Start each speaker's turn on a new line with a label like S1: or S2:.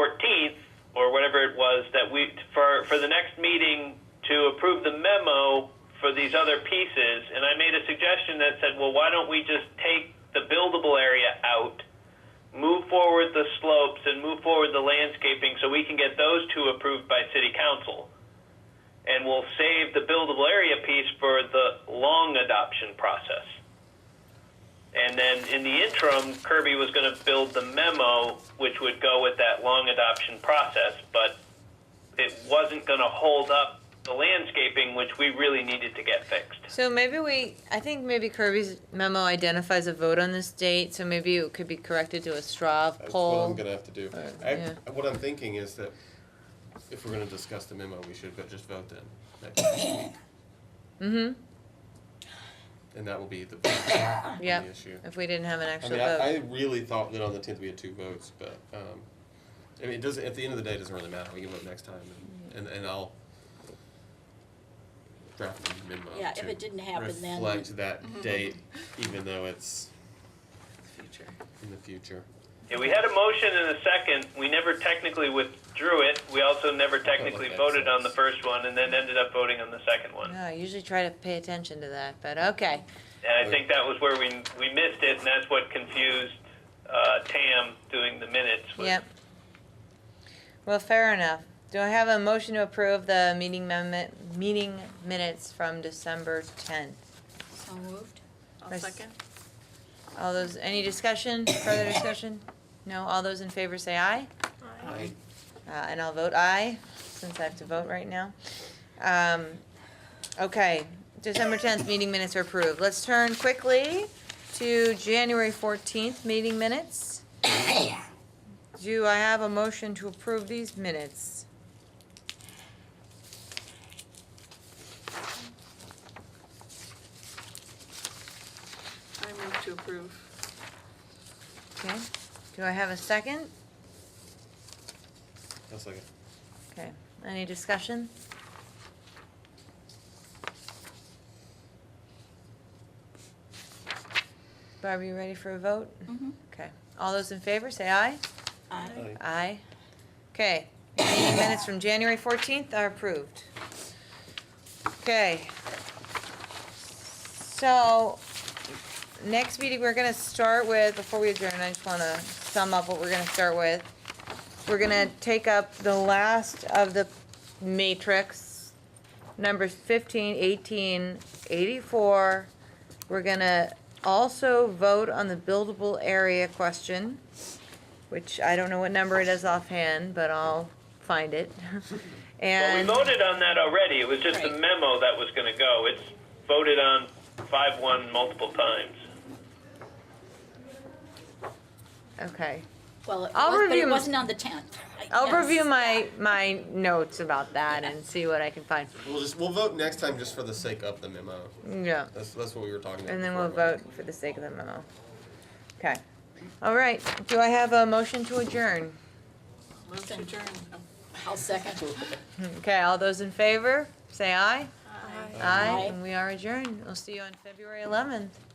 S1: 14th or whatever it was that we for for the next meeting to approve the memo for these other pieces. And I made a suggestion that said, well, why don't we just take the buildable area out, move forward the slopes, and move forward the landscaping so we can get those two approved by city council. And we'll save the buildable area piece for the long adoption process. And then in the interim, Kirby was going to build the memo, which would go with that long adoption process, but it wasn't going to hold up the landscaping, which we really needed to get fixed.
S2: So maybe we, I think maybe Kirby's memo identifies a vote on this date, so maybe it could be corrected to a straw
S3: That's what I'm
S2: poll.
S3: gonna have to do.
S2: Alright,
S3: I,
S2: yeah.
S3: What I'm thinking is that if we're gonna discuss the memo, we should go- just vote then. next week.
S2: Mm-hmm,
S3: And that will be the, the
S2: yeah,
S3: issue.
S2: if we didn't have an
S3: I
S2: actual
S3: mean, I, I
S2: vote.
S3: really thought that on the tenth we had two votes, but, um, I mean, it doesn't, at the end of the day, it doesn't really matter. We can vote next time and, and, and I'll draft a memo
S4: Yeah, if
S3: to
S4: it didn't happen, then- Mm-hmm.
S3: Reflect that date, even though it's
S5: future.
S3: in the future.
S1: Yeah, we had a motion and a second. We never technically withdrew it. We also never technically
S3: that
S1: voted on the
S3: sucks.
S1: first one and then ended up voting on the second one.
S2: No, I usually try to pay attention to that, but okay.
S1: And I think that was where we, we missed it, and that's what confused uh, Tam doing the minutes. was-
S2: Yep. Well, fair enough. Do I have a motion to approve the meeting mem- meeting minutes from December tenth?
S4: So moved.
S5: I'll
S2: Nice.
S5: second.
S2: All those, any discussion, further discussion? No, all those in favor say aye,
S5: Aye.
S2: uh, and I'll vote aye, since I have to vote right now. Um, okay, December tenth, meeting minutes are approved. Let's turn quickly to January fourteenth, meeting minutes. Do I have a motion to approve these minutes?
S5: I move to approve.
S2: Okay, do I have a second?
S3: That's like,
S2: Okay, any discussion? Barb, you ready for a vote?
S4: Mhm.
S2: Okay, all those in favor, say aye.
S4: Aye.
S3: Aye.
S2: Aye. Okay, meeting minutes from January fourteenth are approved. Okay. So, next meeting, we're gonna start with, before we adjourn, I just wanna sum up what we're gonna start with. We're gonna take up the last of the matrix, numbers 15, 18, 84. eighty-four. We're gonna also vote on the buildable area question, which I don't know what number it is offhand, but I'll find it.
S1: Well, we
S2: And,
S1: voted on that already. It was just the
S4: Right.
S1: memo that was going to go. It's voted on 5-1 multiple times.
S2: okay.
S4: Well, it
S2: I'll
S4: was, but
S2: review
S4: it
S2: 'em.
S4: wasn't on the tenth.
S2: I'll review my, my notes about that and see what I can find.
S3: we'll just, we'll vote next time just for the sake of the memo.
S2: Yeah.
S3: That's, that's what we were talking about.
S2: And then
S3: before,
S2: we'll
S3: Mike.
S2: vote for the sake of the memo. Okay. All right. Do I have a motion to adjourn?
S5: Move to adjourn. Oh,
S4: I'll second.
S2: Okay, all those in favor, say aye.
S5: Aye.
S2: Aye,
S4: Aye.
S2: and we are adjourned. We'll see you on February eleventh.